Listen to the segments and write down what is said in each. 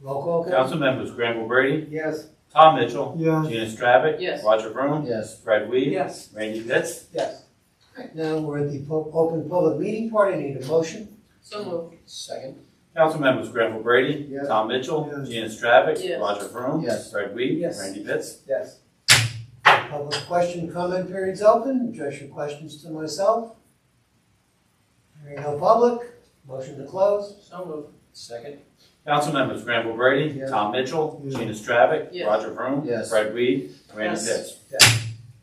Roll call, Kevin? Council members Granville Brady, Yes. Tom Mitchell, Yes. Gina Stravic. Yes. Roger Vroom, Yes. Fred Weed. Yes. Randy Pitts. Yes. Right, now we're at the pu- open public meeting part. I need a motion. So moved. Second. Council members Granville Brady, Yes. Tom Mitchell, Yes. Gina Stravic. Yes. Roger Vroom. Yes. Fred Weed. Yes. Randy Pitts. Yes. Public question, comment period's open. Address your questions to myself. Hearing no public, motion to close. So moved. Second. Council members Granville Brady, Yes. Tom Mitchell, Yes. Gina Stravic. Yes. Roger Vroom. Yes. Fred Weed. Randy Yes. Pitts.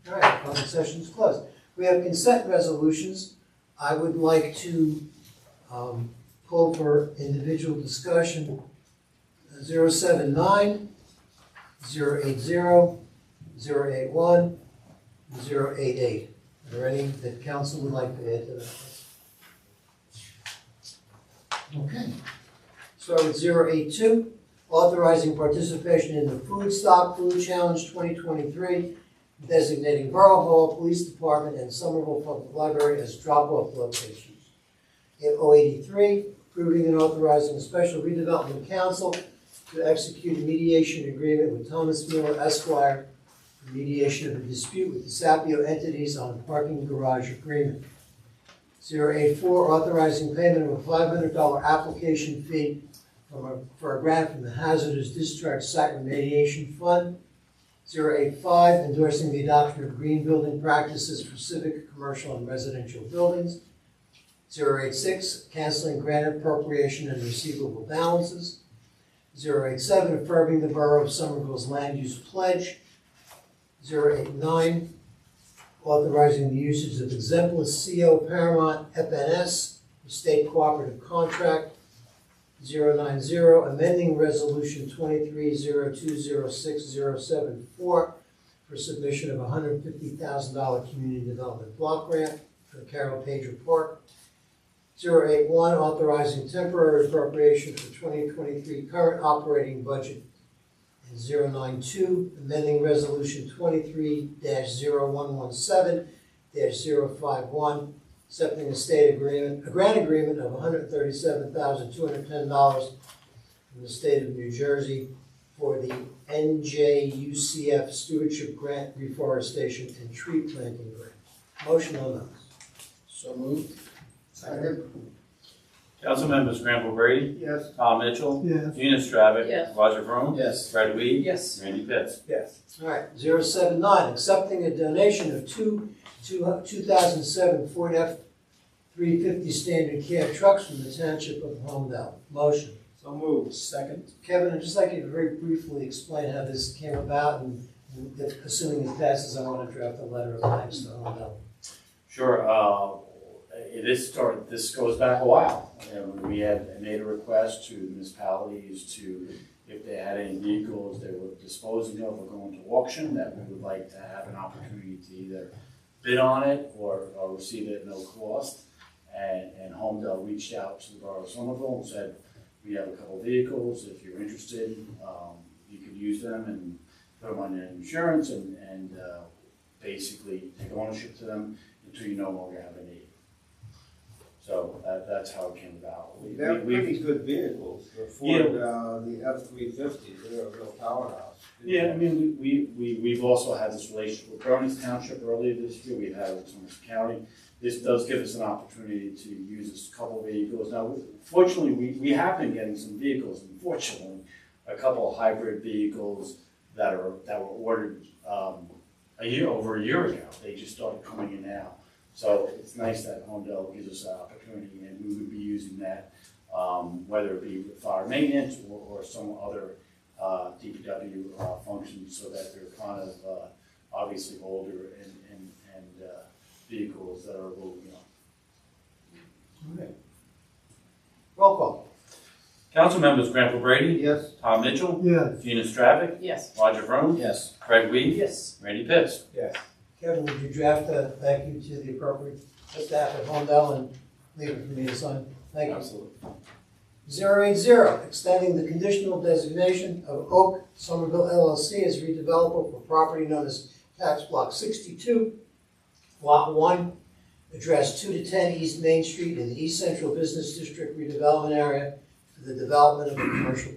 All right, public session's closed. We have consent resolutions. I would like to um, pull for individual discussion 079, 080, 081, 088. Are there any that council would like to add to that? Okay. Start with 082, authorizing participation in the Food Stock Food Challenge 2023 designating Borough Hall, Police Department, and Somerville Public Library as drop-off locations. In 083, approving and authorizing a special redevelopment council to execute a mediation agreement with Thomas Miller Esquire for mediation of a dispute with the Sapio entities on parking garage agreement. 084, authorizing payment of a $500 application fee from a- for a grant from the Hazardous Discharge Site Remediation Fund 085, endorsing the adoption of green building practices for civic, commercial, and residential buildings. 086, canceling grant appropriation and receivable balances. 087, affirming the Borough of Somerville's land use pledge. 089, authorizing the usage of exemplis CO Paramount FNS, state cooperative contract. 090, amending Resolution 23020607 for submission of $150,000 community development block grant for Carroll Pager Park. 081, authorizing temporary appropriation for 2023 current operating budget. And 092, amending Resolution 23-0117-051 accepting a state agreement, a grant agreement of hundred thirty-seven thousand two hundred ten dollars from the state of New Jersey for the NJUCF Stewardship Grant Reforestation and Tree Planting Grant. Motion on those. So moved. Council members Granville Brady, Yes. Tom Mitchell, Yes. Gina Stravic. Yes. Roger Vroom. Yes. Fred Weed. Yes. Randy Pitts. Yes. All right, zero seven nine, accepting a donation of two, two, two thousand seven Ford F three fifty standard cab trucks from the township of Homedale. Motion. So moved. Second. Kevin, I'd just like you to very briefly explain how this came about, and and if- assuming it passes, I want to draft a letter of thanks to Hondo. Sure, uh, it is start, this goes back a while. And we had made a request to municipalities to, if they had any vehicles they were disposing of or going to auction, that we would like to have an opportunity to either bid on it or, or receive it at no cost. And, and Homedale reached out to the Borough of Somerville and said, we have a couple vehicles, if you're interested, um, you could use them and put them on your insurance and, and, uh, basically take ownership to them until you no longer have a need. So that, that's how it came about. We- They're we- we've- pretty good vehicles, the Ford, uh, the F three fifty, they're a real powerhouse. Yeah, I mean, we, we, we've also had this relationship with Burnings Township earlier this year, we've had it with Somerset County. This does give us an opportunity to use this couple of vehicles. Now, fortunately, we, we have been getting some vehicles, unfortunately, a couple of hybrid vehicles that are, that were ordered, um, a year, over a year ago. They just started coming in now. So it's nice that Homedale gives us that opportunity and we would be using that, um, whether it be with fire maintenance or, or some other uh, DPW uh, functions so that they're kind of uh, obviously older and, and, and uh, vehicles that are a little, you know, Roll call. Council members Granville Brady, Yes, Tom Mitchell, Yes. Gina Stravic. Yes. Roger Vroom. Yes. Fred Weed. Yes. Randy Pitts. yes. Kevin, would you draft a thank you to the appropriate staff at Hondo and leave it for me to sign? Thank you. absolutely. Zero eight zero, extending the conditional designation of Oak Somerville LLC as redeveloper for property known as tax block sixty-two, lot one, address two to ten East Main Street in the East Central Business District redevelopment area for the development of a commercial